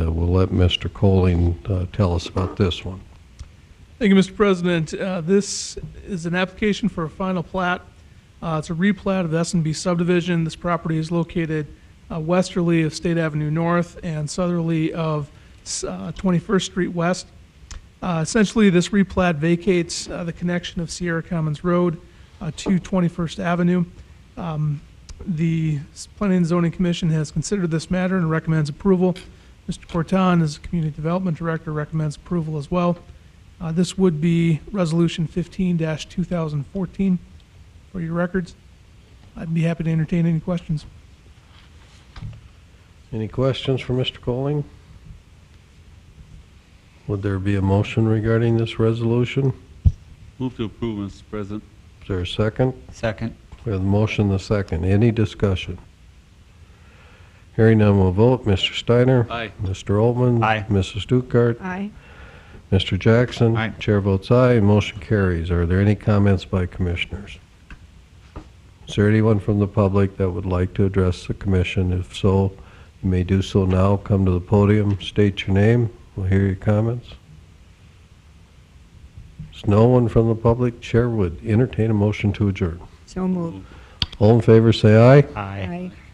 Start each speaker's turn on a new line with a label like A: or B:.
A: Uh, let Mr. Coling uh, tell us about this one.
B: Thank you, Mr. President. Uh, This is an application for a final plat. Uh, It's a replat of the S and B subdivision. This property is located uh, westerly of State Avenue North and southerly of uh, 21st Street West. Uh, Essentially, this replat vacates uh, the connection of Sierra Commons Road uh, to 21st Avenue. Um, The Planning and Zoning Commission has considered this matter and recommends approval. Mr. Corton, as Community Development Director, recommends approval as well. Uh, This would be Resolution 15-2014 for your records. I'd be happy to entertain any questions.
A: Any questions for Mr. Coling? Would there be a motion regarding this resolution?
C: Move to approve, Mr. President.
A: Is there a second?
D: Second.
A: We have the motion, the second. Any discussion? Hearing none, we'll vote. Mr. Steiner?
C: Aye.
A: Mr. Altman?
D: Aye.
A: Mrs. Stuckert?
E: Aye.
A: Mr. Jackson?
D: Aye.
A: Chair votes aye, motion carries. Are there any comments by commissioners? Is there anyone from the public that would like to address the commission? If so, you may do so now. Come to the podium, state your name, we'll hear your comments. There's no one from the public, chair would entertain a motion to adjourn.
E: So moved.
A: All in favor, say aye.
D: Aye.
E: Aye.